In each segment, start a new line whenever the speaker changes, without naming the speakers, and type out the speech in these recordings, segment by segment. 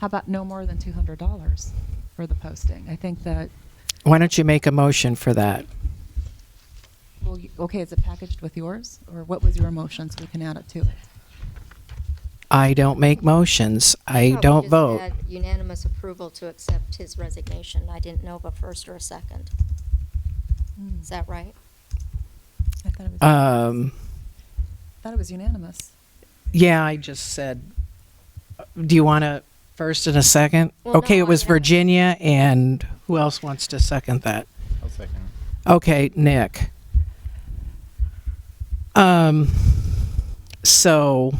How about no more than $200 for the posting? I think that,
Why don't you make a motion for that?
well, you- okay, is it packaged with yours? Or what was your motion so we can add it to it?
I don't make motions. I
Probably
don't
just
vote.
had Unanimous approval to accept his resignation. I didn't know of a first or a second.
Hmm.
Is that right?
I thought it was, I
uh,
Um,
thought it was unanimous.
yeah, I just said, do you want a first and a second?
Well,
Okay,
no,
it was
I-
Virginia and who else wants to second that?
I'll second.
Okay, Nick. Um, so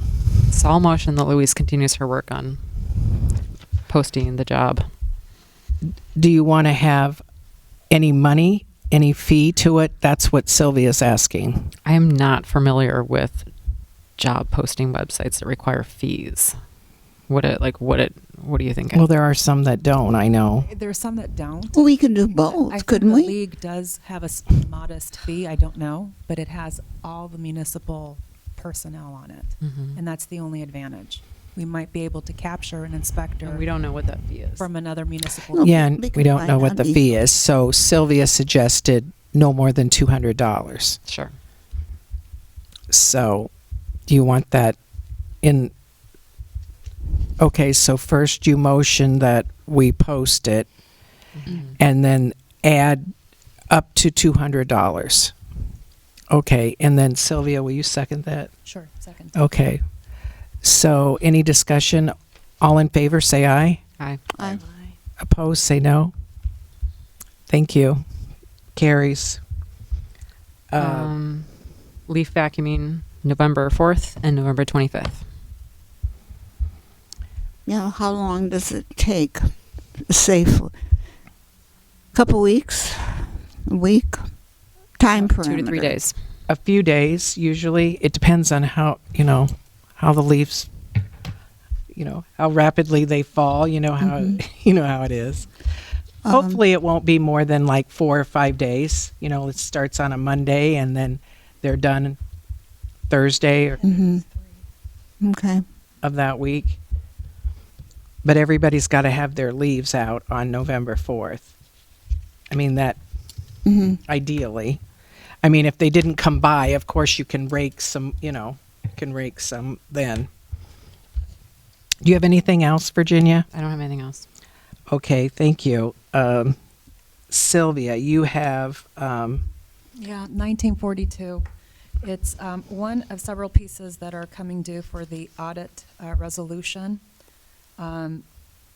So I'll motion that Louise continues her work on posting the job.
do you want to have any money, any fee to it? That's what Sylvia's asking.
I am not familiar with job posting websites that require fees. What it like? What it? What do you think?
Well, there are some that don't, I know.
There are some that don't.
Well, we can do
I
both,
think
couldn't
The
we?
league does have a s- modest fee, I don't know, but it has all the municipal personnel on it.
Mhm.
And that's the only advantage. We might be able to capture an inspector
And we don't know what that fee is.
from another municipal.
Well,
Yeah,
we-
and
we
we
can
don't
find
know what
out
the
the-
fee is. So Sylvia suggested no more than two hundred dollars.
sure.
So, do you want that in? Okay, so first you motion that we post it,
Mm-hmm.
and then add up to two hundred dollars. Okay, and then Sylvia, will you second that?
Sure, second.
Okay. So, any discussion? All in favor, say aye.
Aye.
I-
Opposed, say no. Thank you. Carries. Uh,
um, leaf vacuuming November fourth and November twenty fifth.
Now, how long does it take safely? Couple weeks, a week, time
Two to three
parameter.
days.
a few days usually. It depends on how, you know, how the leaves, you know, how rapidly they fall, you know how you know how it is.
Um,
Hopefully it won't be more than like 4 or 5 days. You know, it starts on a Monday and then they're done Thursday or
Mhm. Okay.
of that week. But everybody's got to have their leaves out on November 4th. I mean, that
Mhm.
Mm-hmm.
ideally. I mean, if they didn't come by, of course you can rake some, you know, can rake some then. Do you have anything else, Virginia?
I don't have anything else.
Okay, thank you. Um, Sylvia, you have, um,
Yeah, 1942. It's um, one of several pieces that are coming due for the audit uh, resolution, Um,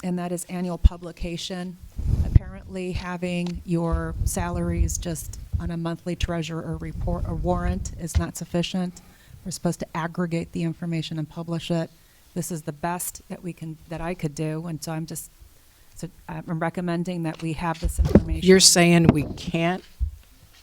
and that is annual publication. Apparently, having your salaries just on a monthly treasurer or report or warrant is not sufficient. We're supposed to aggregate the information and publish it. This is the best that we can, that I could do, and so I'm just, so uh, I'm recommending that we have this information.
you're saying we can't,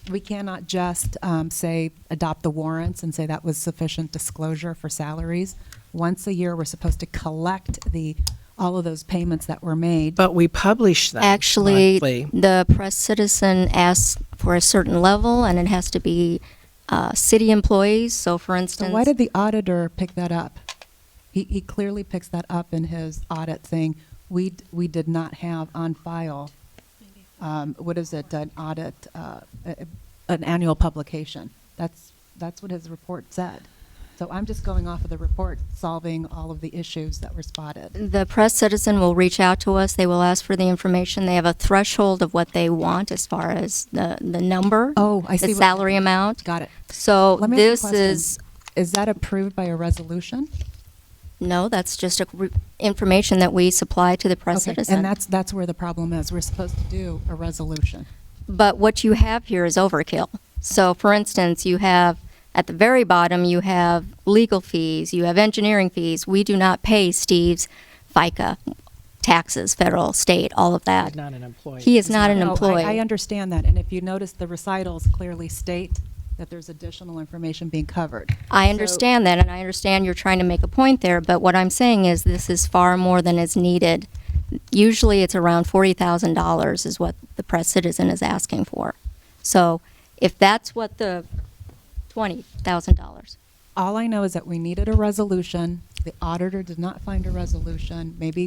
We cannot just um, say, adopt the warrants and say that was sufficient disclosure for salaries. Once a year, we're supposed to collect the, all of those payments that were made.
but we publish them
Actually,
monthly.
the press citizen asks for a certain level, and it has to be uh, city employees. So, for
So
instance,
why did the auditor pick that up? He, he clearly picks that up in his audit saying, we, d- we did not have on file, um, what is it, an audit, uh, a- an annual publication. That's, that's what his report said. So I'm just going off of the report, solving all of the issues that were spotted.
the press citizen will reach out to us. They will ask for the information. They have a threshold of what they want as far as the, the number,
Oh, I see
the
what-
salary amount.
Got it.
So,
Let me ask you a
this
question.
is
Is that approved by a resolution?
no, that's just a re- information that we supply to the press
Okay,
citizen.
And that's, that's where the problem is. We're supposed to do a resolution.
but what you have here is overkill. So, for instance, you have at the very bottom, you have legal fees, you have engineering fees. We do not pay Steve's FICA taxes, federal, state, all of that.
He's not an employee. Oh,
He is not an
No, Oh, I-
employee.
I understand that. And if you notice, the recitals clearly state that there's additional information being covered.
I understand that, and I understand you're trying to make a point there, but what I'm saying is this is far more than is needed. Usually it's around $40,000 is what the press citizen is asking for. So if that's what the $20,000.
All I know is that we needed a resolution. The auditor did not find a resolution. Maybe